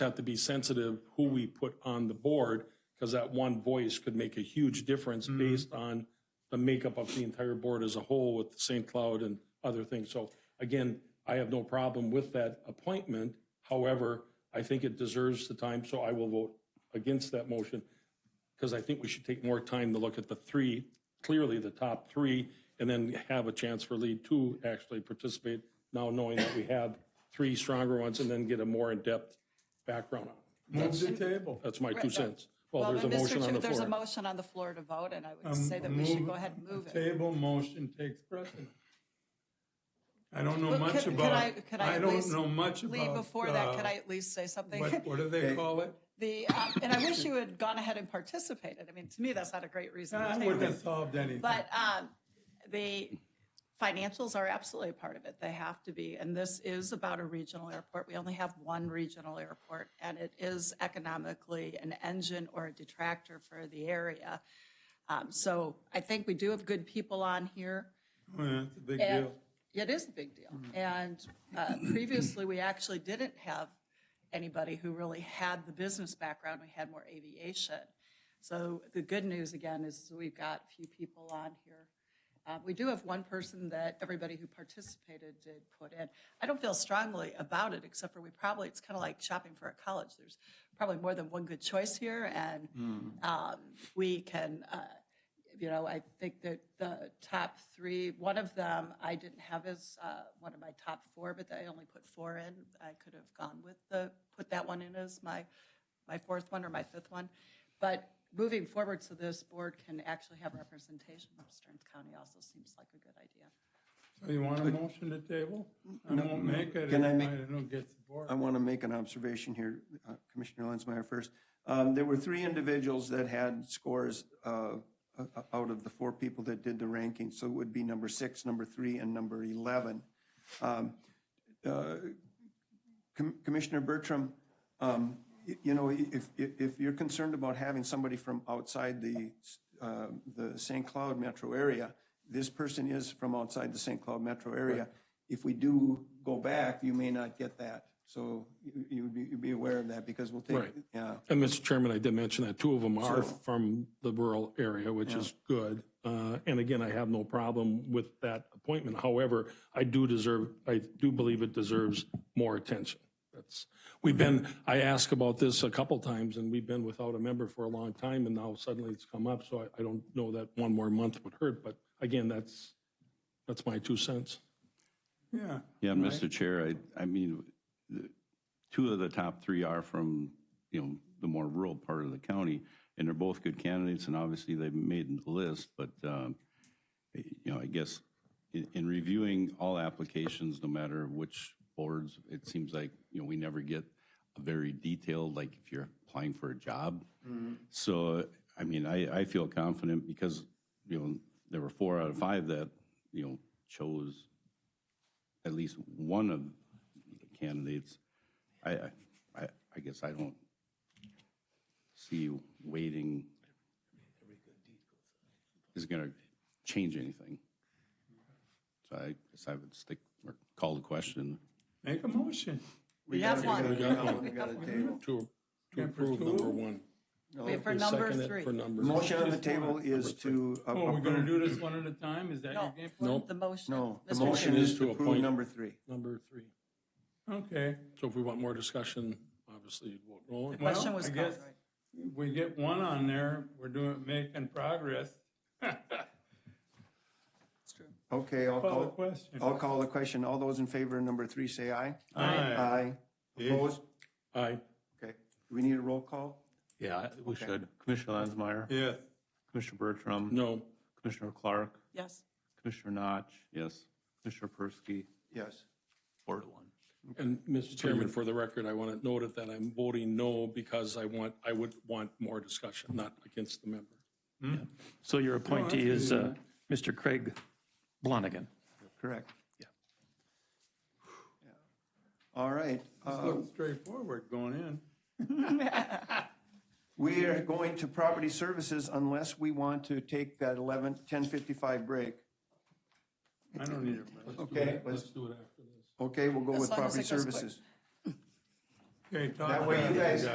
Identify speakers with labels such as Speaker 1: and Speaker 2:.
Speaker 1: have to be sensitive who we put on the board, because that one voice could make a huge difference based on the makeup of the entire board as a whole with St. Cloud and other things. So again, I have no problem with that appointment. However, I think it deserves the time, so I will vote against that motion because I think we should take more time to look at the three, clearly the top three, and then have a chance for lead two actually participate, now knowing that we have three stronger ones, and then get a more in-depth background on it.
Speaker 2: Move the table.
Speaker 1: That's my two cents. Well,
Speaker 3: Well,
Speaker 1: there's a
Speaker 3: then, Mr.
Speaker 1: motion on
Speaker 3: Chair,
Speaker 1: the
Speaker 3: there's a
Speaker 1: floor.
Speaker 3: motion on the floor to vote, and I
Speaker 2: Um,
Speaker 3: would say that we should go ahead and move it.
Speaker 2: Table motion takes precedent. I don't know
Speaker 3: But
Speaker 2: much
Speaker 3: could- could I-
Speaker 2: about,
Speaker 3: could I
Speaker 2: I
Speaker 3: at
Speaker 2: don't
Speaker 3: least
Speaker 2: know much about.
Speaker 3: Lee, before that,
Speaker 2: uh,
Speaker 3: could I at least say something?
Speaker 2: What, what do they call it?
Speaker 3: The, um, and I wish you had gone ahead and participated. I mean, to me, that's not a great reason to
Speaker 2: I
Speaker 3: take
Speaker 2: wouldn't have
Speaker 3: this.
Speaker 2: solved anything.
Speaker 3: But um, the financials are absolutely a part of it. They have to be. And this is about a regional airport. We only have one regional airport, and it is economically an engine or a detractor for the area. Um, So I think we do have good people on here.
Speaker 2: Yeah, It's a big
Speaker 3: And
Speaker 2: deal. Mm.
Speaker 3: It is a big deal. And uh, previously, we actually didn't have anybody who really had the business background. We had more aviation. So the good news, again, is we've got a few people on here. Uh, We do have one person that everybody who participated did put in. I don't feel strongly about it, except for we probably, it's kind of like shopping for a college. There's probably more than one good choice here, and
Speaker 2: Mm.
Speaker 3: um, we can uh, you know, I think that the top three, one of them I didn't have as uh, one of my top four, but I only put four in. I could have gone with the, put that one in as my, my fourth one or my fifth one. But moving forward, so this board can actually have representation from Stearns County also seems like a good idea.
Speaker 2: So you want a motion to table? I won't make it if I
Speaker 4: Can I make-
Speaker 2: don't get support.
Speaker 4: I want to make an observation here, uh, Commissioner Lenzmeyer first. Um, There were three individuals that had scores uh, o- o- out of the four people that did the ranking, so it would be number six, number three, and number 11. Um, uh, Com- Commissioner Bertram, um, y- you know, if, if if you're concerned about having somebody from outside the, uh, the St. Cloud metro area, this person is from outside the St. Cloud metro area. If we do go back, you may not get that. So you- you would be, you'd be aware of that because we'll take,
Speaker 1: Right.
Speaker 4: yeah.
Speaker 1: And Mr. Chairman, I did mention that two of them are from the rural area, which is good. Uh, And again, I have no problem with that appointment. However, I do deserve, I do believe it deserves more attention. That's, we've been, I asked about this a couple times and we've been without a member for a long time and now suddenly it's come up. So I, I don't know that one more month would hurt, but again, that's, that's my two cents.
Speaker 2: Yeah.
Speaker 5: Yeah, Mr. Chair, I, I mean, the, two of the top three are from, you know, the more rural part of the county, and they're both good candidates, and obviously they've made the list, but, um, you know, I guess in, in reviewing all applications, no matter which boards, it seems like, you know, we never get a very detailed, like if you're applying for a job. So, I mean, I, I feel confident because, you know, there were four out of five that, you know, chose at least one of the candidates. I, I- I, I guess I don't see waiting is going to change anything. So I guess I would stick or call the question.
Speaker 2: Make a motion.
Speaker 3: We have
Speaker 4: We
Speaker 3: one.
Speaker 4: got one, we got a table.
Speaker 1: To, to
Speaker 2: Number
Speaker 1: approve number
Speaker 2: two?
Speaker 1: one.
Speaker 3: We have for
Speaker 1: Oh, You
Speaker 3: number
Speaker 1: second it
Speaker 3: three.
Speaker 1: For number.
Speaker 4: The motion on the table is to. uh,
Speaker 2: Oh, we're gonna
Speaker 4: approve-
Speaker 2: do this one at a time? Is that your
Speaker 3: No,
Speaker 2: game plan?
Speaker 3: the motion.
Speaker 4: No, the
Speaker 3: Mr.
Speaker 4: motion
Speaker 3: Chair.
Speaker 4: is
Speaker 1: To
Speaker 4: to approve
Speaker 1: appoint.
Speaker 4: number three.
Speaker 1: Number three.
Speaker 2: Okay.
Speaker 1: So if we want more discussion, obviously, we'll roll on.
Speaker 2: Well,
Speaker 3: Question was
Speaker 2: I
Speaker 3: called,
Speaker 2: guess
Speaker 3: right.
Speaker 2: We get one on there, we're doing, making progress.
Speaker 3: It's true.
Speaker 4: Okay, I'll
Speaker 2: Call the
Speaker 4: call,
Speaker 2: question.
Speaker 4: I'll call the question. All those in favor of number three, say aye.
Speaker 2: Aye.
Speaker 4: Aye. Opposed?
Speaker 1: Aye.
Speaker 4: Okay. Do we need a roll call?
Speaker 6: Yeah, I- we should. Commissioner Lansmeyer,
Speaker 2: Yes.
Speaker 6: Commissioner Bertram,
Speaker 1: No.
Speaker 6: Commissioner Clark,
Speaker 3: Yes.
Speaker 6: Commissioner Notch,
Speaker 5: Yes.
Speaker 6: Commissioner Persky,
Speaker 4: Yes.
Speaker 6: four to one.
Speaker 1: And Mr. Chairman, for the record, I want to note it that I'm voting no because I want, I would want more discussion, not against the member.
Speaker 7: So your appointee is uh, Mr. Craig Blonigan.
Speaker 4: Correct. Yeah. All right, uh,
Speaker 2: Looks straightforward going in.
Speaker 4: we are going to property services unless we want to take that 11, 10:55 break.
Speaker 2: I don't need a.
Speaker 4: Okay, let's,
Speaker 1: do it after this.
Speaker 4: okay, we'll go
Speaker 3: As
Speaker 4: with
Speaker 3: long as
Speaker 4: property
Speaker 3: it goes quick.
Speaker 4: services.
Speaker 8: Okay, Todd.
Speaker 2: That way you guys